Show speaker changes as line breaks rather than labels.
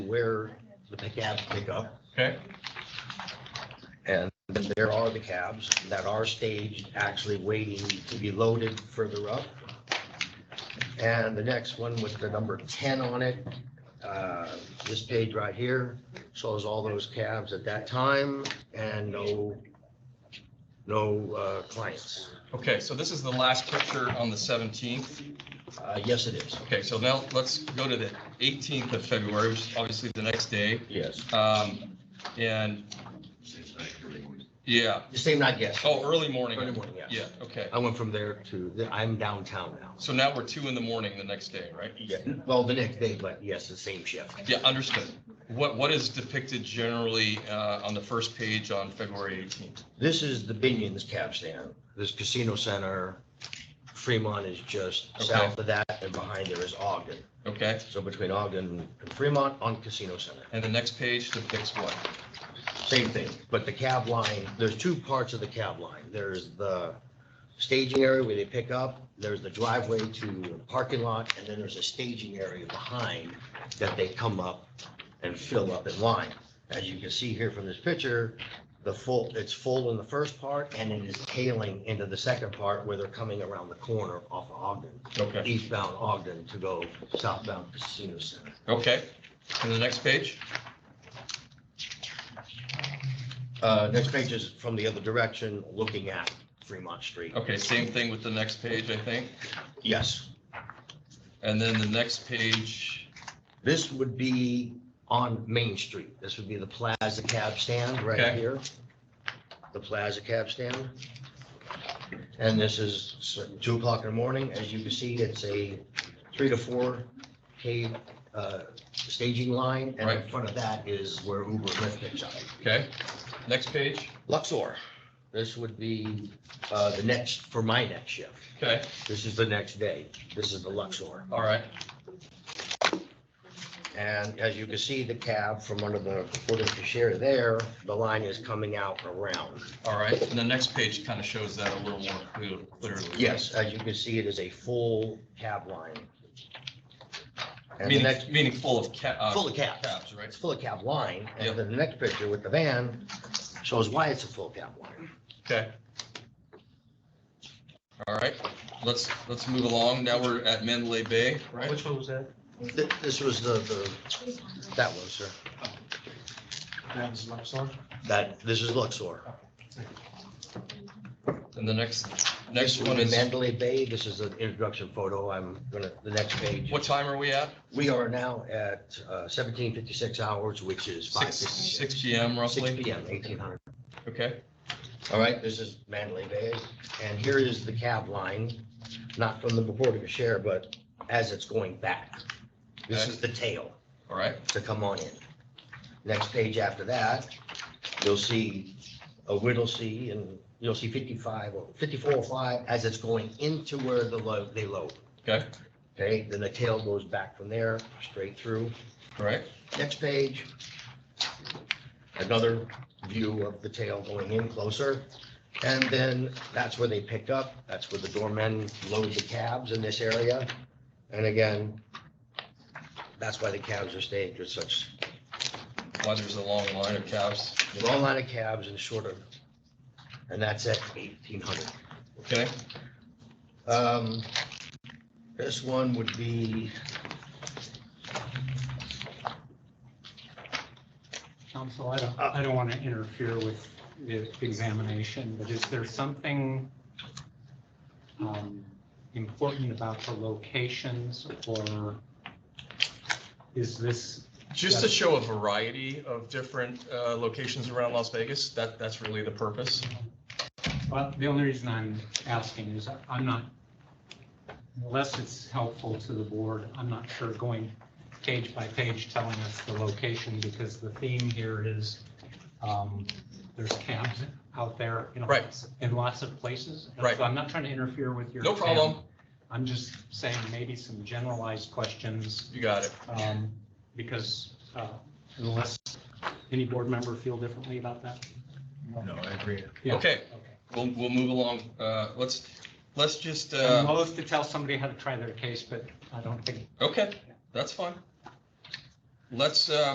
where the cabs pick up.
Okay.
And then there are the cabs that are staged, actually waiting to be loaded further up. And the next one with the number ten on it, uh, this page right here shows all those cabs at that time and no, no uh, clients.
Okay, so this is the last picture on the seventeenth.
Uh, Yes, it is.
Okay, so now let's go to the eighteenth of February, which is obviously the next day.
Yes.
Um, and, yeah,
The same night, yes.
oh, early morning.
Early morning, yes.
Yeah, okay.
I went from there to, the- I'm downtown now.
So now we're two in the morning the next day, right?
Yeah, well, the next day, but yes, the same shift.
Yeah, understood. What, what is depicted generally, uh, on the first page on February eighteenth?
This is the Binion's cab stand. This casino center, Fremont is just
Okay.
south of that and behind there is Ogden.
Okay,
So between Ogden and Fremont on Casino Center,
and the next page depicts what?
same thing. But the cab line, there's two parts of the cab line. There's the staging area where they pick up, there's the driveway to the parking lot, and then there's a staging area behind that they come up and fill up in line. As you can see here from this picture, the full, it's full in the first part and it is tailing into the second part where they're coming around the corner off of Ogden,
Okay,
eastbound Ogden to go southbound Casino Center.
okay. And the next page?
Uh, next page is from the other direction, looking at Fremont Street.
Okay, same thing with the next page, I think.
Yes,
And then the next page,
this would be on Main Street. This would be the Plaza Cab Stand right
Okay.
here. The Plaza Cab Stand. And this is s- two o'clock in the morning. As you can see, it's a three to four K, uh, staging line. And in
Right.
front of that is where Uber and Lyft picks up.
okay? Next page,
Luxor, this would be, uh, the next, for my next shift.
okay,
This is the next day. This is the Luxor.
all right,
And as you can see, the cab from under the foot of the chair there, the line is coming out around.
all right. And the next page kind of shows that a little more clear- clearly.
Yes, as you can see, it is a full cab line. And the
Meaning,
next,
meaning full of ca- uh,
full of cabs.
cabs, right?
It's full of cab line.
Yep.
And then the next picture with the van shows why it's a full cab line.
Okay. All right, let's, let's move along. Now we're at Mandalay Bay, right?
Which one was that?
Th- This was the, the, that one, sir.
That was Luxor?
That, this is Luxor.
And the next,
This
next
would
one
be
is,
Mandalay Bay. This is an introduction photo. I'm gonna, the next page.
what time are we at?
We are now at uh, seventeen fifty-six hours, which is five
Six,
fifty-six.
six P M
Six
roughly?
P M, eighteen hundred.
Okay,
All right, this is Mandalay Bay, and here is the cab line, not from the Port of Share, but as it's going back. This is the tail
all right,
to come on in. Next page after that, you'll see a Whittlesey, and you'll see 55 or 54 or 5 as it's going into where the load, they load.
Okay.
Okay, then the tail goes back from there, straight through.
all right.
Next page. Another view of the tail going in closer. And then that's where they pick up. That's where the doormen load the cabs in this area. And again, that's why the cabs are staged with such
Why there's a long line of cabs,
long line of cabs and shorter. And that's at eighteen hundred.
okay?
Um, this one would be,
Counsel, I don't,
Uh,
I don't want to interfere with the examination, but is there something um, important about the locations or is this,
Just to show a variety of different uh, locations around Las Vegas, that, that's really the purpose.
well, the only reason I'm asking is I'm not, unless it's helpful to the board, I'm not sure going page by page telling us the location because the theme here is um, there's cabs out there in
Right.
lots, in lots of places. And
Right.
So I'm not trying to interfere with your.
No
cab.
problem,
I'm just saying maybe some generalized questions,
you got it.
um, because uh, unless any board member feel differently about that.
No, I agree.
Yeah.
Okay,
Okay.
we'll, we'll move along. Uh, Let's, let's just,
I'm
uh,
loath to tell somebody how to try their case, but I don't think
okay, that's fine. Let's, uh,